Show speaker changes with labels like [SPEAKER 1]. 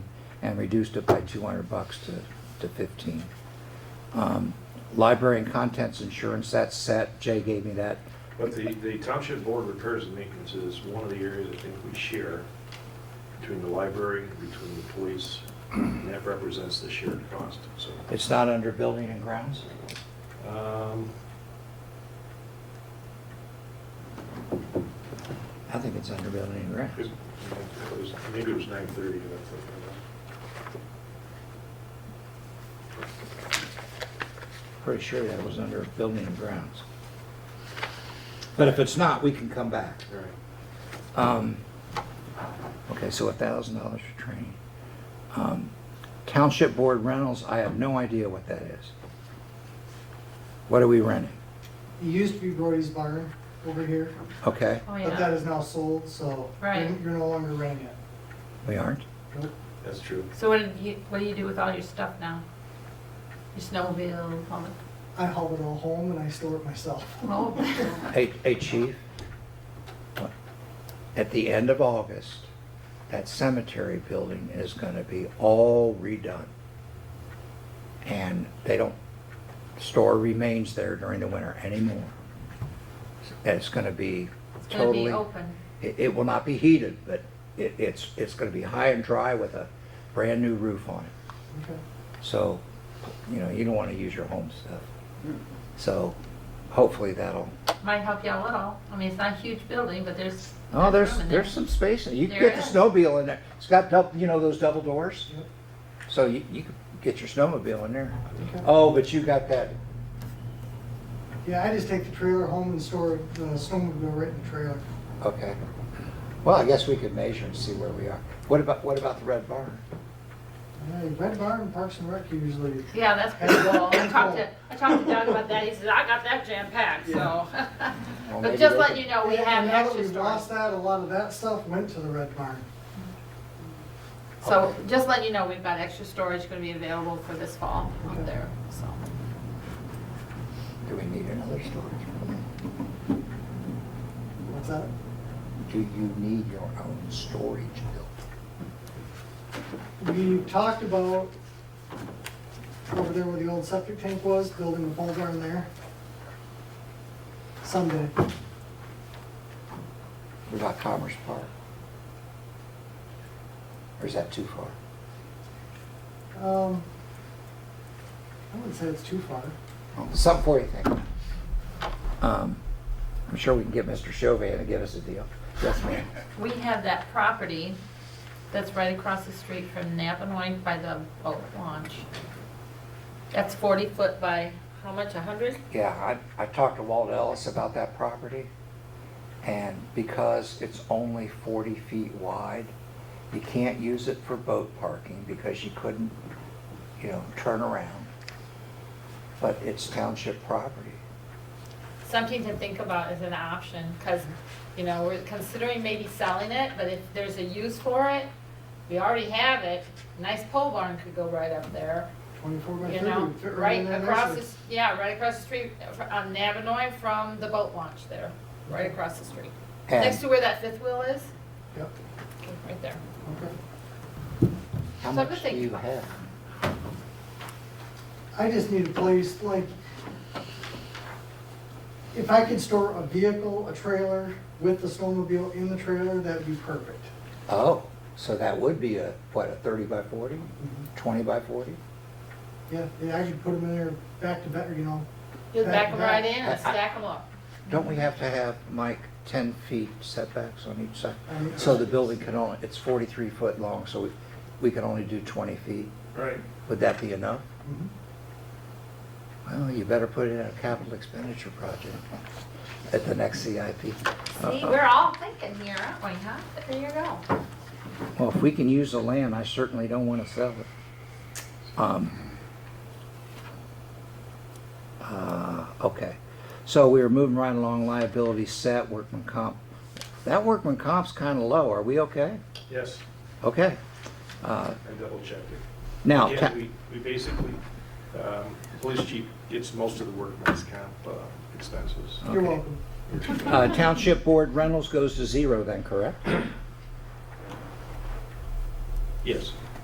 [SPEAKER 1] and reduced it by two hundred bucks to, to fifteen. Um, Library and contents insurance, that's set, Jay gave me that,
[SPEAKER 2] But the, the township board repairs and maintenance is one of the areas I think we share between the library, between the police, and that represents the shared cost, so.
[SPEAKER 1] it's not under building and grounds?
[SPEAKER 2] um,
[SPEAKER 1] I think it's under building and grounds.
[SPEAKER 2] it was- Maybe it was nine thirty that I
[SPEAKER 1] Pretty sure that was under building and grounds. But if it's not, we can come back.
[SPEAKER 2] thought. All right.
[SPEAKER 1] Um, Okay, so a thousand dollars for training. Um, Township board rentals, I have no idea what that is. What are we renting?
[SPEAKER 3] It used to be Brody's Barn over here,
[SPEAKER 1] Okay,
[SPEAKER 4] Oh,
[SPEAKER 3] but that
[SPEAKER 4] yeah.
[SPEAKER 3] is now sold, so you're
[SPEAKER 4] Right.
[SPEAKER 3] you're no longer renting it.
[SPEAKER 1] we aren't?
[SPEAKER 3] Nope.
[SPEAKER 2] That's true.
[SPEAKER 4] So what did you, what do you do with all your stuff now? Your snowmobile, all the,
[SPEAKER 3] I haul it all home and I store it myself.
[SPEAKER 4] oh,
[SPEAKER 1] Hey, hey, chief. What? At the end of August, that cemetery building is gonna be all redone. And they don't store remains there during the winter anymore. And it's gonna be
[SPEAKER 4] it's gonna
[SPEAKER 1] totally.
[SPEAKER 4] be open.
[SPEAKER 1] It, it will not be heated, but it, it's, it's gonna be high and dry with a brand-new roof on it.
[SPEAKER 3] Okay.
[SPEAKER 1] So, you know, you don't wanna use your home stuff. So hopefully that'll,
[SPEAKER 4] Might help you out a little. I mean, it's not a huge building, but there's.
[SPEAKER 1] oh, there's,
[SPEAKER 4] room in there.
[SPEAKER 1] there's some space. in it. You can
[SPEAKER 4] There
[SPEAKER 1] get the
[SPEAKER 4] is.
[SPEAKER 1] snowmobile in there. It's got, dou- you know, those double doors?
[SPEAKER 3] Yep.
[SPEAKER 1] So you, you can get your snowmobile in there.
[SPEAKER 3] Okay.
[SPEAKER 1] Oh, but you got that,
[SPEAKER 3] Yeah, I just take the trailer home and store the snowmobile right in the trailer.
[SPEAKER 1] okay. Well, I guess we could measure and see where we are. What about, what about the red barn?
[SPEAKER 3] Yeah, Red Barn, Parks and Rec usually,
[SPEAKER 4] Yeah, that's pretty cool. I talked to, I talked to Doug about that. He says, I got that jam packed, so.
[SPEAKER 1] Well,
[SPEAKER 4] But
[SPEAKER 1] maybe
[SPEAKER 4] just
[SPEAKER 1] they
[SPEAKER 4] letting
[SPEAKER 1] could-
[SPEAKER 4] you know, we
[SPEAKER 3] And
[SPEAKER 4] have
[SPEAKER 3] now that
[SPEAKER 4] extra
[SPEAKER 3] we've
[SPEAKER 4] storage.
[SPEAKER 3] lost that, a lot of that stuff went to the Red Barn.
[SPEAKER 4] So just letting you know, we've got extra storage gonna be available for this fall
[SPEAKER 3] Okay.
[SPEAKER 4] up there, so.
[SPEAKER 1] Do we need another storage? building?
[SPEAKER 3] What's that?
[SPEAKER 1] Do you need your own storage building?
[SPEAKER 3] We talked about over there where the old septic tank was, building the pole barn there. Someday.
[SPEAKER 1] What about Commerce Park? Or is that too far?
[SPEAKER 3] Um, I wouldn't say it's too far.
[SPEAKER 1] Something for you to think. Um, I'm sure we can get Mr. Chauvin to give us a deal. Yes, ma'am.
[SPEAKER 4] We have that property that's right across the street from Nap and Wine by the boat launch. That's 40 foot by, how much, 100?
[SPEAKER 1] Yeah, I, I talked to Walt Ellis about that property. And because it's only 40 feet wide, you can't use it for boat parking because you couldn't, you know, turn around. But it's township property.
[SPEAKER 4] Something to think about as an option, because, you know, we're considering maybe selling it, but if there's a use for it, we already have it, nice pole barn could go right up there,
[SPEAKER 3] Twenty-four by
[SPEAKER 4] you
[SPEAKER 3] thirty
[SPEAKER 4] know?
[SPEAKER 3] would fit right
[SPEAKER 4] Right
[SPEAKER 3] in there
[SPEAKER 4] across, the
[SPEAKER 3] nicely.
[SPEAKER 4] s- yeah, right across the street, uh, fr- on Navinoy from the boat launch there, right across the street.
[SPEAKER 1] And-
[SPEAKER 4] Next to where that fifth wheel is,
[SPEAKER 3] Yep,
[SPEAKER 4] right there.
[SPEAKER 3] okay.
[SPEAKER 1] How
[SPEAKER 4] So I could
[SPEAKER 1] much do
[SPEAKER 4] think
[SPEAKER 1] you
[SPEAKER 4] about-
[SPEAKER 1] have?
[SPEAKER 3] I just need a place, like, if I could store a vehicle, a trailer, with the snowmobile in the trailer, that'd be perfect.
[SPEAKER 1] Oh, so that would be a, what, a thirty by forty?
[SPEAKER 4] Mm-hmm.
[SPEAKER 1] Twenty by forty?
[SPEAKER 3] Yeah, yeah, I could put them in there back to back, you know,
[SPEAKER 4] Just
[SPEAKER 3] That-
[SPEAKER 4] back them right
[SPEAKER 3] that-
[SPEAKER 4] in and
[SPEAKER 1] I- I-
[SPEAKER 4] stack them up.
[SPEAKER 1] Don't we have to have, Mike, ten feet setbacks on each side?
[SPEAKER 3] Um,
[SPEAKER 1] So the building can only, it's forty-three foot long, so we, we can only do twenty feet.
[SPEAKER 2] Right.
[SPEAKER 1] Would that be enough?
[SPEAKER 3] Mhm.
[SPEAKER 1] Well, you better put it in a capital expenditure project at the next CIP.
[SPEAKER 4] See, we're all thinking here, aren't we, huh? There you go.
[SPEAKER 1] Well, if we can use the land, I certainly don't want to sell it. Um, uh, Okay, so we are moving right along, liability set, workman comp. That workman comp's kind of low, are we okay?
[SPEAKER 2] Yes,
[SPEAKER 1] Okay. Uh,
[SPEAKER 2] I double checked it.
[SPEAKER 1] Now,
[SPEAKER 2] Yeah,
[SPEAKER 1] ta-
[SPEAKER 2] we, we basically, um, the police chief gets most of the workman's comp uh, expenses.
[SPEAKER 3] you're
[SPEAKER 1] Okay.
[SPEAKER 3] welcome.
[SPEAKER 1] uh, township board rentals goes to zero then, correct?